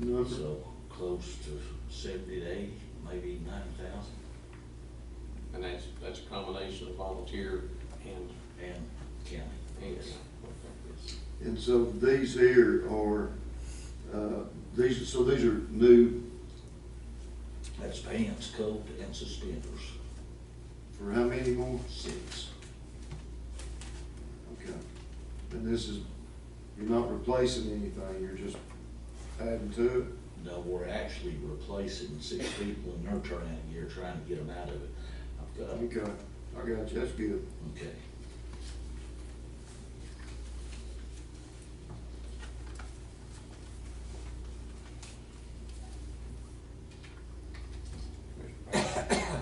Close. So close to seventy to eighty, maybe nine thousand, And that's, that's a combination of volunteer and, and county. and. Yes. Yes. And so these here are, uh, these, so these are new That's pants, coat, and suspenders, for how many more? six. Okay. And this is, you're not replacing anything, you're just adding to it? No, we're actually replacing six people in their turnout gear, trying to get them out of it. I've got, Okay, I got you, that's good. okay. Mr. Patterson,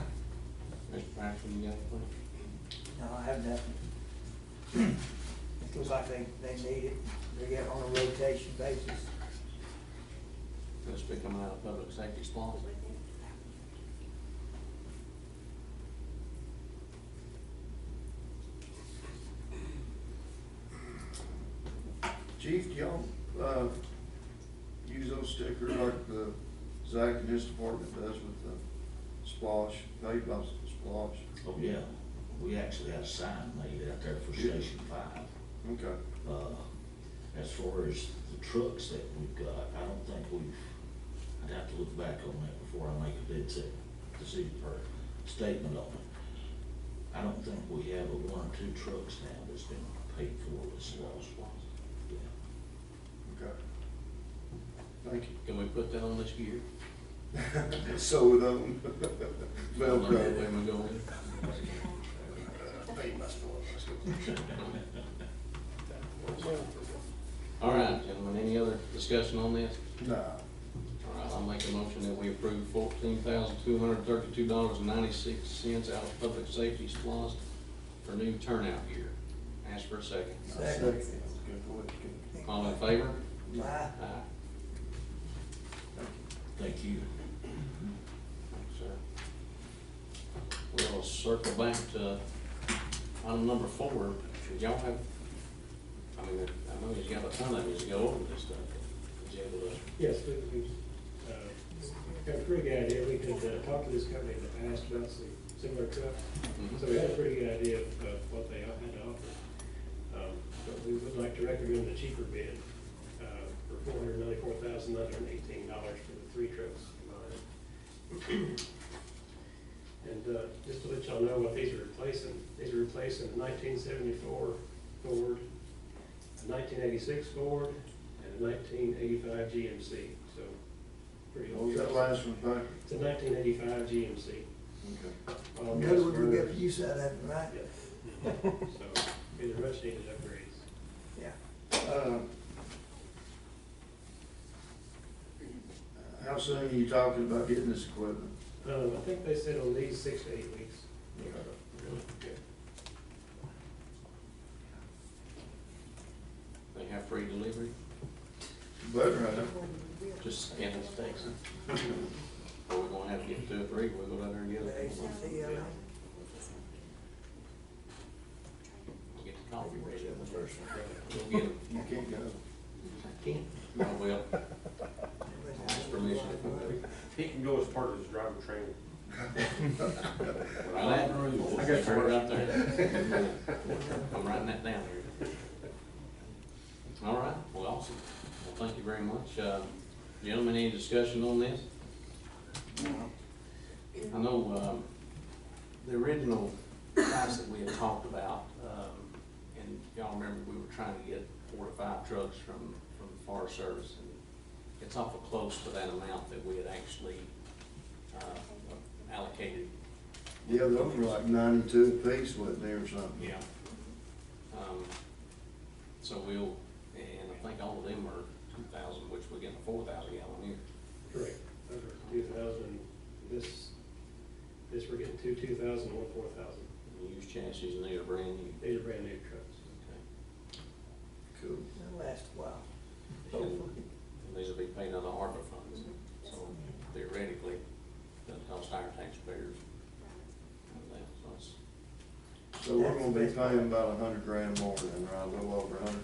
Mr. Patterson, you got a No, I have nothing. It feels like they, they need it, they get on a rotation basis. plan? Let's pick them out of public safety spot. Chief, do y'all, uh, use those stickers like the Zach and his department does with the splosh, paid by splosh? Oh, yeah, we actually had a sign made out there for Station Five. Okay, Uh, As far as the trucks that we've got, I don't think we've, I'd have to look back on that before I make a bid set, decision or statement on it. I don't think we have a one or two trucks now that's been paid for this loss. Yeah. okay. Thank Can we put that on this year? you. Sew it on. Velcro. Where we going? All right, gentlemen, any other discussion on this? Nah. All right, I'll make a motion that we approve fourteen thousand two hundred thirty-two dollars and ninety-six cents out of public safety splost for new turnout gear. Ask for a second. Second. That's Good point, good. All in favor? Aye. Aye. Thank you. Thanks, sir. We'll circle back to item number four. Did y'all have, I mean, I know he's got a ton of these to go over this stuff. Was you able to Yes, we, we, uh, got a pretty good idea, we had uh, talked to this company in the past about some similar trucks, so we had a pretty good idea of of what they had to offer. Um, But we would like to recommend the cheaper bid, uh, for four hundred ninety-four thousand nine hundred eighteen dollars for the three trucks combined. And, uh, just to let y'all know what these are replacing, these are replacing a nineteen seventy-four Ford, a nineteen eighty-six Ford, and a nineteen eighty-five GMC, so pretty What old. was that trucks. last one, Patrick? It's a nineteen eighty-five GMC. Okay. All You trucks know, we're gonna were- get use out of that, right? Yeah. So, these are much needed upgrades. Yeah. Uh, How soon are you talking about getting this equipment? Um, I think they said on these six to eight weeks. They have free delivery? But, right, Just scan the stakes. Are we gonna have to get two or three? We'll go down there and get The it. ACC, all right. Get the coffee ready up first. We'll get it. you can't go. Can't. Oh, well, ask permission. He can go as part of his driver training. Well, that rule. I guess we're- Right there. I'm writing that down here. All right, well, awesome. Well, thank you very much. Uh, Gentlemen, any discussion on this? I know, um, the original price that we had talked about, um, and y'all remember, we were trying to get four to five trucks from, from the Forest Service. and It's awful close to that amount that we had actually, uh, allocated Yeah, those were like ninety-two apiece, wasn't there, or something? yeah. Um, so we'll, and I think all of them are two thousand, which we're getting a four thousand gallon here. Correct. Those are two thousand, this, this we're getting two two thousand, one four thousand. Used chassis and they are brand new. These are brand new trucks. Okay. Cool. It'll last a while. So these will be paid out of ARPA funds, so theoretically, that helps higher taxpayers. And that's- that's- So we're gonna be paying about a hundred grand more than, right, a little over a hundred